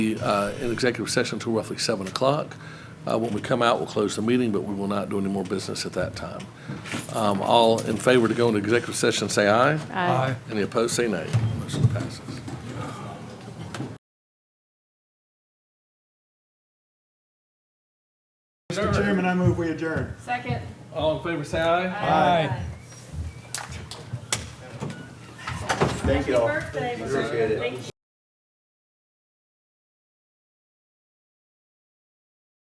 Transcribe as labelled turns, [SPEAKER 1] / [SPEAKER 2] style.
[SPEAKER 1] uh, in executive session until roughly 7 o'clock. Uh, When we come out, we'll close the meeting, but we will not do any more business at that time. Um, All in favor to go into executive session, say aye.
[SPEAKER 2] Aye.
[SPEAKER 1] Any opposed, say nay. Motion passes.
[SPEAKER 3] Mr. Chairman, I move we adjourn.
[SPEAKER 4] Second.
[SPEAKER 1] All in favor, say aye.
[SPEAKER 2] Aye.
[SPEAKER 4] Thank you all. Happy birthday. Appreciate it. Thank you.